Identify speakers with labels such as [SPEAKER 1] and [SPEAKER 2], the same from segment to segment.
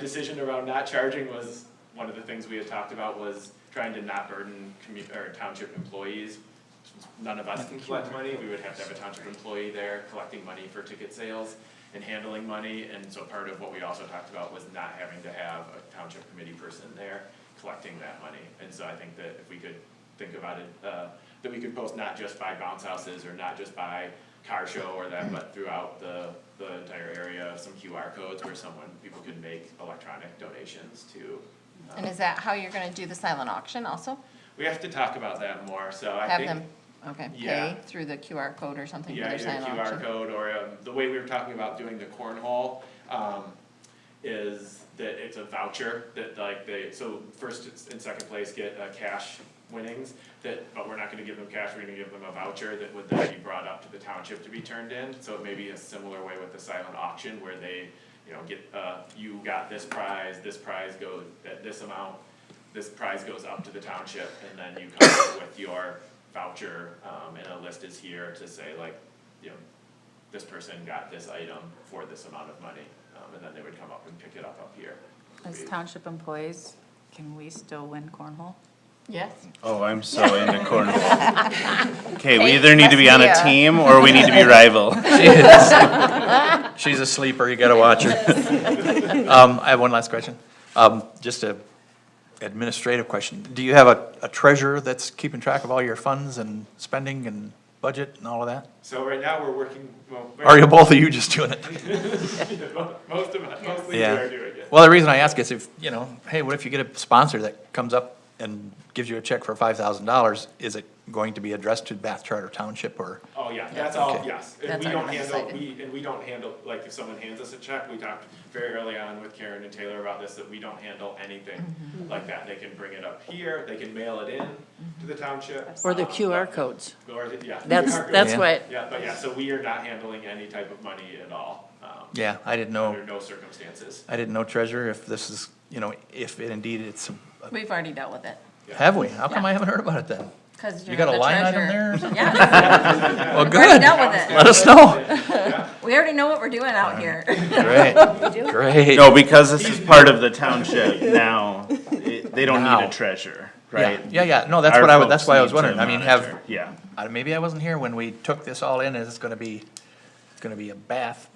[SPEAKER 1] decision around not charging was, one of the things we had talked about was trying to not burden commu- or township employees. Since None of us can collect money, we would have to have a township employee there collecting money for ticket sales and handling money. And so part of what we also talked about was not having to have a township committee person there collecting that money. And so I think that if we could think about it, uh, that we could post not just by bounce houses or not just by car show or that, but throughout the, the entire area, some QR codes where someone, people could make electronic donations to. um,
[SPEAKER 2] And is that how you're gonna do the silent auction also?
[SPEAKER 1] We have to talk about that more, so I
[SPEAKER 2] Have
[SPEAKER 1] think.
[SPEAKER 2] them, okay,
[SPEAKER 1] Yeah.
[SPEAKER 2] pay through the QR code or something for
[SPEAKER 1] Yeah,
[SPEAKER 2] their
[SPEAKER 1] either
[SPEAKER 2] silent
[SPEAKER 1] QR
[SPEAKER 2] auction?
[SPEAKER 1] code or um, the way we were talking about doing the cornhole, um, is that it's a voucher that like they, so first and second place get uh, cash winnings that, but we're not gonna give them cash, we're gonna give them a voucher that would then be brought up to the township to be turned in. So it may be a similar way with the silent auction where they, you know, get, uh, you got this prize, this prize goes, at this amount, this prize goes up to the township and then you come up with your voucher, um, and a list is here to say like, you know, this person got this item for this amount of money, um, and then they would come up and pick it up up here.
[SPEAKER 3] As township employees, can we still win cornhole?
[SPEAKER 2] Yes.
[SPEAKER 4] Oh, I'm so into cornhole. Okay, we
[SPEAKER 2] Hey,
[SPEAKER 4] either need to be on a
[SPEAKER 2] must be a-
[SPEAKER 4] team or we need to be rival.
[SPEAKER 5] She's a sleeper, you gotta watch her. Um, I have one last question. Um, just a administrative question. Do you have a, a treasurer that's keeping track of all your funds and spending and budget and all of that?
[SPEAKER 1] So right now, we're working, well,
[SPEAKER 5] Or are you, both of you just doing it?
[SPEAKER 1] most of, us- most leagues
[SPEAKER 5] Yeah.
[SPEAKER 1] are doing it.
[SPEAKER 5] Well, the reason I ask is if, you know, hey, what if you get a sponsor that comes up and gives you a check for five thousand dollars? Is it going to be addressed to Bath Charter Township or?
[SPEAKER 1] Oh, yeah, that's all,
[SPEAKER 5] Okay.
[SPEAKER 1] yes, and
[SPEAKER 2] That's
[SPEAKER 1] we don't
[SPEAKER 2] already
[SPEAKER 1] handle,
[SPEAKER 2] decided.
[SPEAKER 1] we, and we don't handle, like, if someone hands us a check, we talked very early on with Karen and Taylor about this, that we don't handle anything
[SPEAKER 6] Mm-hmm.
[SPEAKER 1] like that, they can bring it up here, they can mail it in to the township.
[SPEAKER 6] Or the
[SPEAKER 1] um,
[SPEAKER 6] QR
[SPEAKER 1] but-
[SPEAKER 6] codes.
[SPEAKER 1] Or, the- yeah. the
[SPEAKER 6] That's,
[SPEAKER 1] QR code.
[SPEAKER 6] that's
[SPEAKER 5] Yeah.
[SPEAKER 6] what,
[SPEAKER 1] Yeah, but yeah, so we are not handling any type of money at all, um,
[SPEAKER 5] Yeah, I didn't
[SPEAKER 2] Oh.
[SPEAKER 5] know,
[SPEAKER 1] under no circumstances.
[SPEAKER 5] I didn't know treasurer if this is, you know, if it indeed it's, a-
[SPEAKER 2] We've already dealt with it,
[SPEAKER 5] have we? How come
[SPEAKER 2] Yeah.
[SPEAKER 5] I haven't heard about it then?
[SPEAKER 2] cause you're
[SPEAKER 5] You got
[SPEAKER 2] the
[SPEAKER 5] a line item
[SPEAKER 2] treasurer.
[SPEAKER 5] there? or something?
[SPEAKER 2] Yes,
[SPEAKER 5] Well,
[SPEAKER 2] we already
[SPEAKER 5] good.
[SPEAKER 2] dealt with it.
[SPEAKER 5] Let us know.
[SPEAKER 2] We already know what we're doing
[SPEAKER 1] Uh-huh.
[SPEAKER 2] out here.
[SPEAKER 5] Great, great.
[SPEAKER 4] No, because this is part of the township now, it- they don't need
[SPEAKER 5] Now.
[SPEAKER 4] a treasurer,
[SPEAKER 5] Yeah,
[SPEAKER 4] right?
[SPEAKER 5] yeah, yeah, no, that's
[SPEAKER 4] Our
[SPEAKER 5] what I, wa-
[SPEAKER 4] folks
[SPEAKER 5] that's why I was
[SPEAKER 4] need to
[SPEAKER 5] wondering, I mean, have,
[SPEAKER 4] monitor. Yeah,
[SPEAKER 5] I- maybe I wasn't here when we took this all in, is it's gonna be, it's gonna be a bath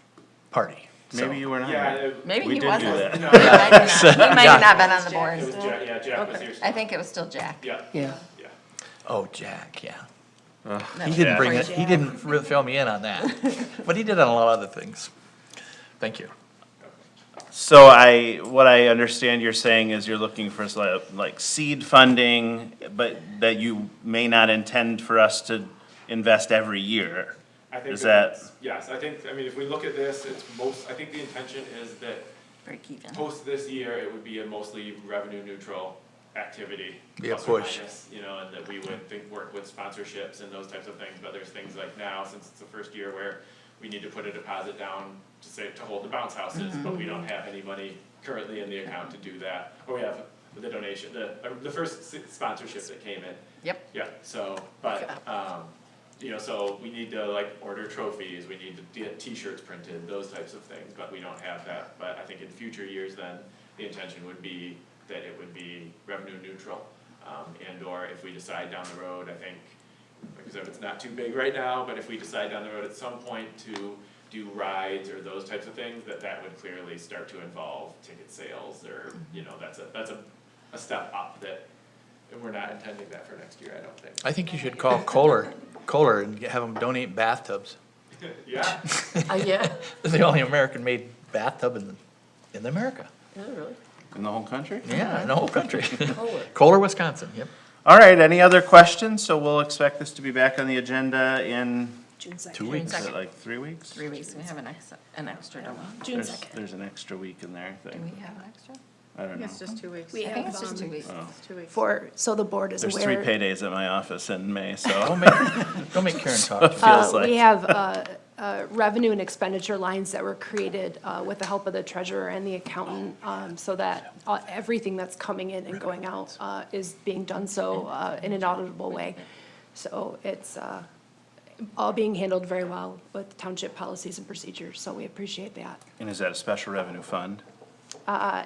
[SPEAKER 5] party. So-
[SPEAKER 4] maybe you were not.
[SPEAKER 1] Yeah, it,
[SPEAKER 2] Maybe
[SPEAKER 4] We
[SPEAKER 2] he
[SPEAKER 4] did do
[SPEAKER 2] wasn't.
[SPEAKER 4] that.
[SPEAKER 1] no,
[SPEAKER 2] He
[SPEAKER 1] it
[SPEAKER 2] might have not- he might have not been on the
[SPEAKER 1] was
[SPEAKER 2] board.
[SPEAKER 1] Jack, yeah, Jack was here.
[SPEAKER 2] I think it was still Jack.
[SPEAKER 1] Yeah,
[SPEAKER 6] yeah.
[SPEAKER 1] yeah.
[SPEAKER 5] Oh, Jack, yeah.
[SPEAKER 2] That
[SPEAKER 5] He
[SPEAKER 2] was
[SPEAKER 5] didn't
[SPEAKER 2] before
[SPEAKER 5] bring it, he
[SPEAKER 2] Jack.
[SPEAKER 5] didn't really fill me in on that, but he did on a lot of other things. Thank you.
[SPEAKER 4] So I, what I understand you're saying is you're looking for sli- like seed funding, but that you may not intend for us to invest every year.
[SPEAKER 1] I think
[SPEAKER 4] Is that-
[SPEAKER 1] that's- Yes, I think, I mean, if we look at this, it's most, I think the intention is that
[SPEAKER 2] Break even.
[SPEAKER 1] post this year, it would be a mostly revenue neutral activity.
[SPEAKER 5] Be a
[SPEAKER 1] plus or
[SPEAKER 5] push.
[SPEAKER 1] minus, You know, and that we would think, work with sponsorships and those types of things, but there's things like now, since it's the first year where we need to put a deposit down to say, to hold the bounce houses, but we don't have any money currently in the account to do that. Or we have the donation, the, uh, the first s- sponsorship that came in,
[SPEAKER 2] Yep,
[SPEAKER 1] yeah, so, but, um, you know, so we need to like order trophies, we need to get t-shirts printed, those types of things, but we don't have that. But I think in future years then, the intention would be that it would be revenue neutral. Um, and or if we decide down the road, I think, like I said, it's not too big right now, but if we decide down the road at some point to do rides or those types of things, that that would clearly start to involve ticket sales or, you know, that's a, that's a, a step up that and we're not intending that for next year, I don't think.
[SPEAKER 5] I think you should call Kohler, Kohler and have them donate bathtubs.
[SPEAKER 1] Yeah,
[SPEAKER 6] Uh, yeah,
[SPEAKER 5] They're the only American-made bathtub in, in America.
[SPEAKER 6] Yeah, really.
[SPEAKER 4] In the whole country?
[SPEAKER 5] Yeah, in the whole country.
[SPEAKER 6] Kohler.
[SPEAKER 5] Kohler, Wisconsin, yep.
[SPEAKER 4] All right, any other questions? So we'll expect this to be back on the agenda in,
[SPEAKER 5] Two
[SPEAKER 4] is
[SPEAKER 5] weeks.
[SPEAKER 4] it like three weeks?
[SPEAKER 2] three weeks, we have an ex, an extra, don't we?
[SPEAKER 7] June
[SPEAKER 4] There's,
[SPEAKER 7] second.
[SPEAKER 4] there's an extra week in there, I
[SPEAKER 2] Do
[SPEAKER 4] think.
[SPEAKER 2] we have an extra?
[SPEAKER 4] I don't know.
[SPEAKER 3] just two weeks.
[SPEAKER 7] We
[SPEAKER 2] I think
[SPEAKER 7] have,
[SPEAKER 2] it's just two
[SPEAKER 7] um,
[SPEAKER 2] weeks.
[SPEAKER 3] two weeks.
[SPEAKER 7] for, so the board is
[SPEAKER 4] There's three
[SPEAKER 7] aware.
[SPEAKER 4] paydays at my office in May, so
[SPEAKER 5] Don't make, don't make Karen talk.
[SPEAKER 4] it feels
[SPEAKER 7] Uh, we
[SPEAKER 4] like.
[SPEAKER 7] have, uh, uh, revenue and expenditure lines that were created, uh, with the help of the treasurer and the accountant, um, so that, uh, everything that's coming in and going out, uh, is being done so, uh, in an auditable way. So it's, uh, all being handled very well with township policies and procedures, so we appreciate that.
[SPEAKER 4] And is that a special revenue fund?
[SPEAKER 7] uh,